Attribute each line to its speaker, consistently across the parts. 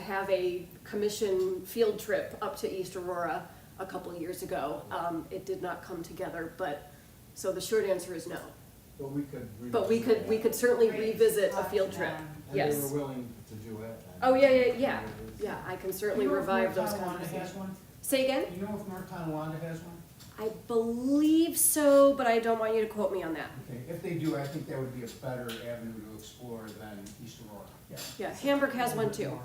Speaker 1: have a commission field trip up to East Aurora a couple of years ago. Um, it did not come together, but, so the short answer is no.
Speaker 2: But we could.
Speaker 1: But we could, we could certainly revisit a field trip.
Speaker 2: And
Speaker 1: yes.
Speaker 2: they were willing to do it.
Speaker 1: Oh, yeah, yeah, yeah, yeah, I can certainly revive those conversations. Say again?
Speaker 3: You know if North Tonawanda has one?
Speaker 1: I believe so, but I don't want you to quote me on that.
Speaker 3: Okay, if they do, I think that would be a better avenue to explore than East Aurora.
Speaker 4: Yeah.
Speaker 1: Yeah, Hamburg has one too.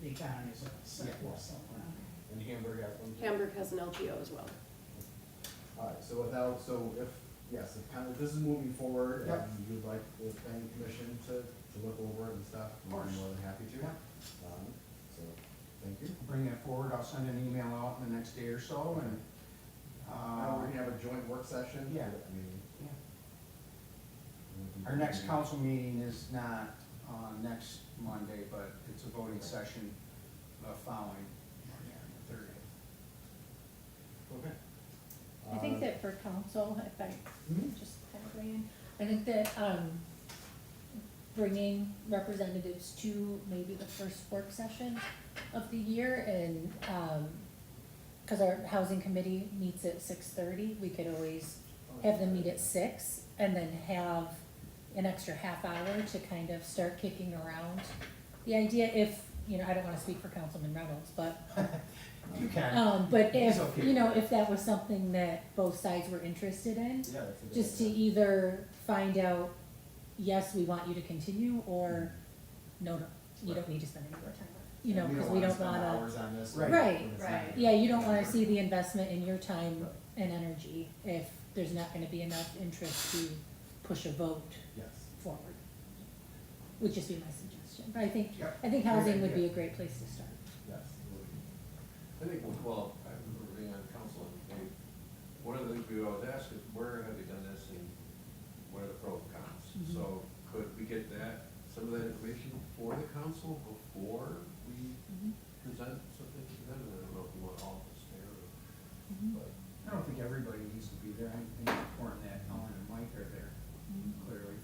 Speaker 4: The economy is a sector somewhere.
Speaker 3: uh,
Speaker 2: And Hamburg has one. too.
Speaker 1: Hamburg has an LGO as well.
Speaker 2: All right, so without, so if, yes, if kind of, this is moving forward,
Speaker 3: Yep.
Speaker 2: and you'd like the planning commission to, to look over it and stuff, we're more than happy to. Um, So, thank you.
Speaker 3: Bring that forward, I'll send an email out in the next day or so and,
Speaker 2: Now, we're
Speaker 3: uh,
Speaker 2: gonna have a joint work session.
Speaker 3: Yeah.
Speaker 2: I mean.
Speaker 3: Yeah.
Speaker 2: we can-
Speaker 3: our next council meeting is not, uh, next Monday, but it's a voting session the following, Monday, the thirtieth.
Speaker 2: Okay.
Speaker 5: I think
Speaker 2: Uh,
Speaker 5: that for council, if I
Speaker 2: Mhm.
Speaker 5: just kind of bring in, I think that, um, bringing representatives to maybe the first work session of the year and, um 'cause cause our housing committee meets at six thirty, we could always have them meet at six and then have an extra half hour to kind of start kicking around. The idea if, you know, I don't wanna speak for Councilman Reynolds, but
Speaker 3: You can.
Speaker 5: um, but if,
Speaker 3: It's okay.
Speaker 5: you know, if that was something that both sides were interested in,
Speaker 2: Yeah, that's a good
Speaker 5: just to e,
Speaker 2: idea.
Speaker 5: either find out, yes, we want you to continue, or no, no, you don't need to spend any more time, on it," you know, because we don't wanna.
Speaker 2: Hours on this.
Speaker 3: Right.
Speaker 5: Right.
Speaker 2: It's not-
Speaker 6: Right.
Speaker 5: Yeah, you don't wanna see the investment in your time
Speaker 2: Right.
Speaker 5: and energy if there's not gonna be enough interest to push a vote
Speaker 2: Yes.
Speaker 5: forward. Would just be my suggestion, but I think,
Speaker 3: Yep.
Speaker 5: I think housing would be
Speaker 3: Yeah.
Speaker 5: a great place to start.
Speaker 2: Yes.
Speaker 7: I think, well, I remember being on council, and they, one of the things we always ask is, where have you done this, and what are the pros and cons? So, could we get that, some of that information for the council before we
Speaker 5: Mhm.
Speaker 7: present something to them? I don't know if you want all of us there, or-
Speaker 5: Mhm.
Speaker 7: but,
Speaker 3: I don't think everybody needs to be there, I think it's important that Ellen and Mike are there, clearly.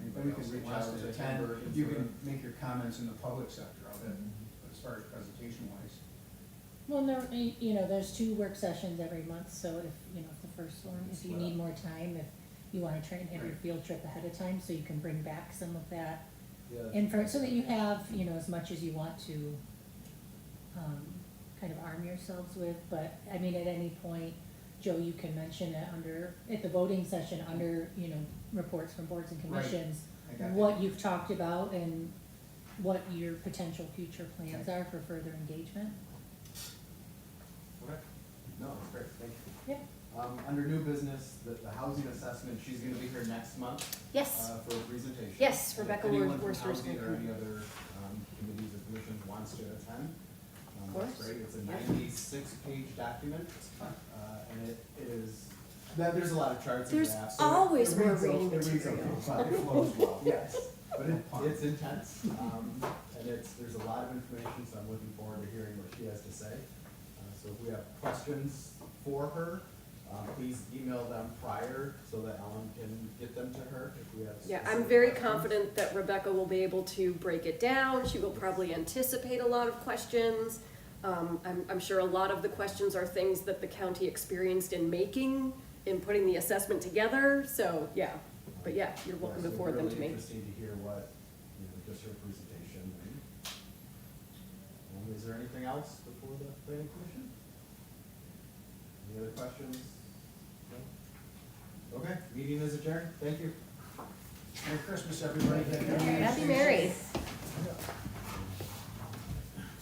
Speaker 3: Anybody
Speaker 2: But we can
Speaker 3: else that
Speaker 2: reach
Speaker 3: wants
Speaker 2: out
Speaker 3: to
Speaker 2: to
Speaker 3: attend,
Speaker 2: Hamburg and
Speaker 3: you
Speaker 2: sort
Speaker 3: can
Speaker 2: of- Mm-hmm.
Speaker 3: make your comments in the public sector of it, but as far as presentation wise.
Speaker 5: Well, and there, y- you know, there's two work sessions every month, so if, you know, if the first one, if you need more time, if you wanna try and have your
Speaker 3: Right.
Speaker 5: field trip ahead of time, so you can bring back some of that
Speaker 2: Yeah.
Speaker 5: info, so that you have, you know, as much as you want to, um, kind of arm yourselves with, but, I mean, at any point, Joe, you can mention it under, at the voting session, under, you know, reports from boards and
Speaker 3: Right.
Speaker 5: commissions,
Speaker 3: I got that.
Speaker 5: what you've talked about and what your potential future plans are for further engagement.
Speaker 2: Okay. No, that's great, thank you.
Speaker 5: Yeah.
Speaker 2: Um, under new business, the, the housing assessment, she's gonna be here next month,
Speaker 1: Yes.
Speaker 2: uh, for a presentation.
Speaker 1: Yes,
Speaker 2: If
Speaker 1: Rebecca
Speaker 2: anyone
Speaker 1: Wor-
Speaker 2: from
Speaker 1: Worster's
Speaker 2: housing
Speaker 1: gonna
Speaker 2: Or
Speaker 1: come.
Speaker 2: any other, um, committees or commissions wants to attend. Of
Speaker 1: course.
Speaker 2: Great, it's a
Speaker 1: Yeah.
Speaker 2: ninety-six page document, uh, and it it is, that, there's a lot of charts and
Speaker 1: There's
Speaker 2: graphs. so it- it
Speaker 1: always more
Speaker 2: reads o-
Speaker 1: reading
Speaker 2: it reads
Speaker 1: material.
Speaker 2: okay, but it flows well, yes, but it, it's intense, um, and it's, there's a lot of information, so I'm looking forward to hearing what she has to say. Uh, So if we have questions for her, uh, please email them prior so that Ellen can get them to her if we have.
Speaker 1: Yeah, I'm
Speaker 2: specific
Speaker 1: very
Speaker 2: questions.
Speaker 1: confident that Rebecca will be able to break it down. She will probably anticipate a lot of questions. Um, I'm, I'm sure a lot of the questions are things that the county experienced in making, in putting the assessment together, so, yeah. But yeah, you're welcome
Speaker 2: Yeah,
Speaker 1: to
Speaker 2: so
Speaker 1: forward them to
Speaker 2: Really
Speaker 1: me.
Speaker 2: interesting to hear what, you know, just her presentation. and- Um, Is there anything else before the planning commission? Any other questions? No? Okay, meeting is adjourned, thank you.
Speaker 3: Merry Christmas, everybody.
Speaker 1: Happy Mary.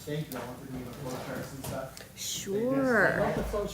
Speaker 2: Thank you, Ellen, for doing the flow charts and stuff.
Speaker 1: Sure.
Speaker 2: About the flow